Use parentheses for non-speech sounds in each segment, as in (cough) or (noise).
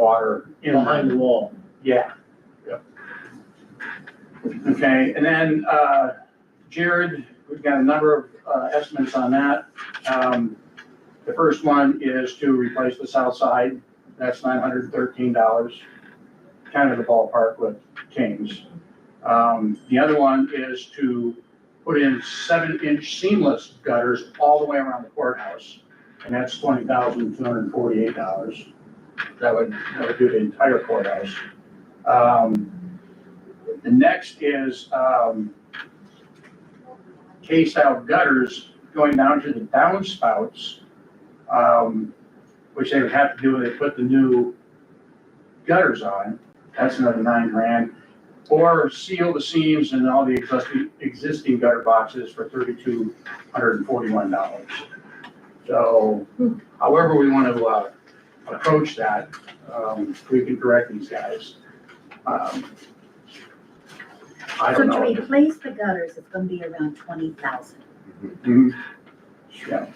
water in line. behind the wall. Yeah. Yep. Okay, and then, uh, Jared, we've got a number of, uh, estimates on that. Um, the first one is to replace the south side, that's nine hundred and thirteen dollars, kind of the ballpark with Kings. Um, the other one is to put in seven-inch seamless gutters all the way around the courthouse, and that's twenty thousand two hundred and forty-eight dollars. That would, that would do the entire courthouse. Um, The next is um, K-style gutters going down to the downspouts, um, which they would have to do when they put the new gutters on. That's another nine grand. Or seal the seams and all the existing, existing gutter boxes for thirty-two hundred and forty-one dollars. So however we want to uh, approach that, um, we can direct these guys. Um, I So don't know. to replace the gutters, it's gonna be around twenty thousand. Mhm. Yeah,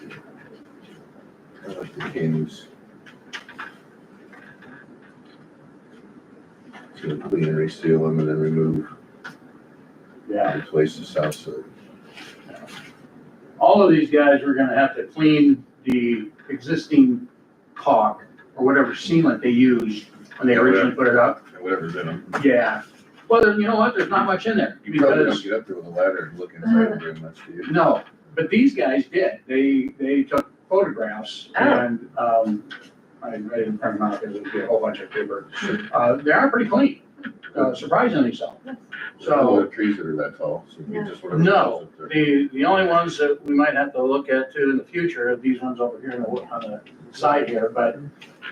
I like the Kings. To clean and reseal them and then remove, yeah. replace the south side. All of these guys are gonna have to clean the existing caulk or whatever sealant they used when they originally put it up. Whatever's in them. Yeah. Well, there- you know what? There's not much in there You probably don't because, get up there with a ladder and look inside them very much, do you? no, but these guys did. They, they took photographs Oh. and, um, I I didn't print them out because it'd be a whole bunch of paper. Uh, they are pretty clean, uh, surprisingly so. So. All the trees that are that tall, so you just whatever. No. goes up there. The, the only ones that we might have to look at too in the future are these ones over here on the, on the side here, but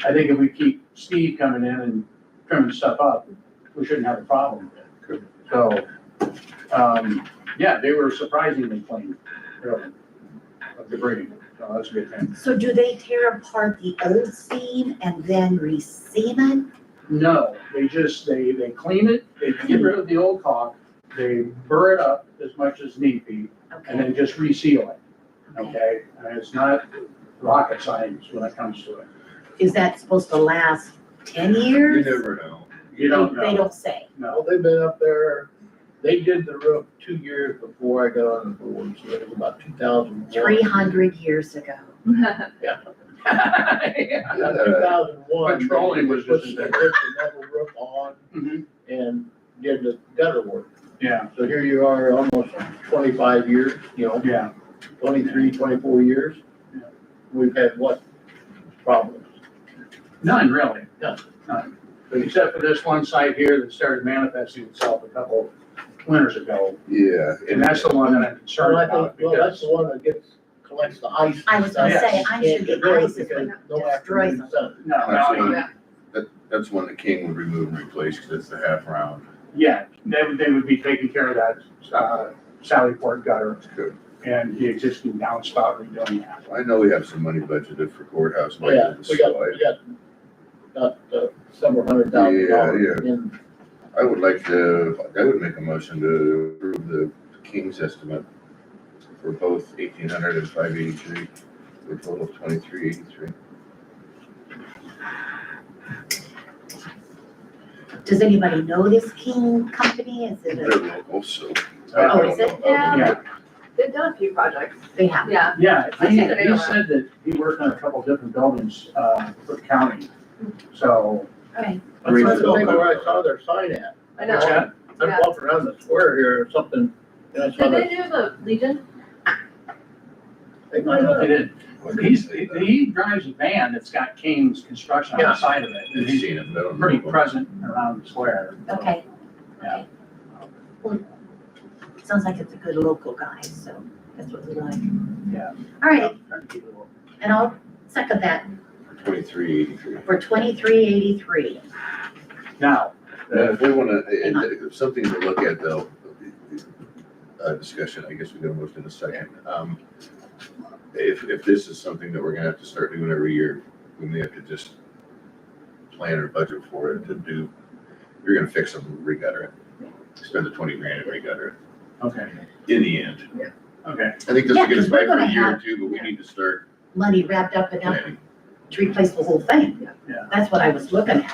I think if we keep Steve coming in and trimming stuff up, we shouldn't have a problem with it. So, um, yeah, they were surprisingly clean, really, of debris, so that's a good thing. So do they tear apart the old seam and then reseam it? No, they just, they, they clean it, they get rid of the old caulk, they burr it up as much as need be, and Okay, then just reseal it. okay? And it's not rocket science when it comes to it. is that supposed to last ten You years? never know. You don't They- (laughs) They know, don't say. no. Well, they've been up there, they did the roof two years before I got on the board, so it was about two thousand. Three hundred years ago. (laughs) Two thousand one. Petroleum was just They put the metal roof on Mhm, and did the gutter work. Yeah, So here you are, almost twenty-five years, you know, yeah, 23, 24 years. Yeah. We've had what problems? none really. None. None, But except for this one site here that started manifesting itself a couple winters ago. Yeah. And that's the one that I'm concerned Well, I about think, well, that's because, the one that gets, collects the ice. and I was gonna stuff. say, I'm sure Can't get the rid of ice is because gonna no destroy afternoon them. sun. no, no, Absolutely. That, that's one the king would remove and replace, cause it's the half round. yeah, they would, they would be taking care of that, uh, Sally Port gutter It's good. and the existing downspout redoing that. I know we have some money budgeted for courthouse. Oh, Yeah, maintenance, we got, so I- we got, got uh, several hundred thousand Yeah, dollars in I would like to, I would make a motion to approve the King's estimate for both eighteen hundred and five eighty-three, for a total of twenty-three eighty-three. Does anybody know this King company? Is it, They're a- local, so. Oh, is it now? Um, Yeah, They've done a few projects, they have? yeah. yeah, I he, think they he are. said that he worked on a couple different buildings, uh, for county, so. Okay, I Green tried to Hill. think where I saw their sign at. I What's that? know. I Yeah. walked around the square here or something, and I saw Did they that. do the Legion? They might No, It have. is. He's, he drives a van that's got King's construction on the Yeah. side of it. and I've he's seen them, but I don't Pretty know. present around the square. okay. Yeah. Well, Sounds like it's a good local guy, so that's what we like. Yeah. All right, and I'll second that Twenty-three eighty-three. for twenty-three eighty-three. Now, Now, if we wanna, Hang on. uh, uh, something to look at though, uh, discussion, I guess we can move in a second. Um, if, if this is something that we're gonna have to start doing every year, we may have to just plan or budget for it to do, if you're gonna fix them, regutter it. Spend the twenty grand and regutter okay, it, in the end. okay, I think this Yeah, will get us 'cause we're back for a gonna year or have- two, but we need to start Money wrapped up enough planning. to replace the whole thing. Yeah. That's what I was looking at.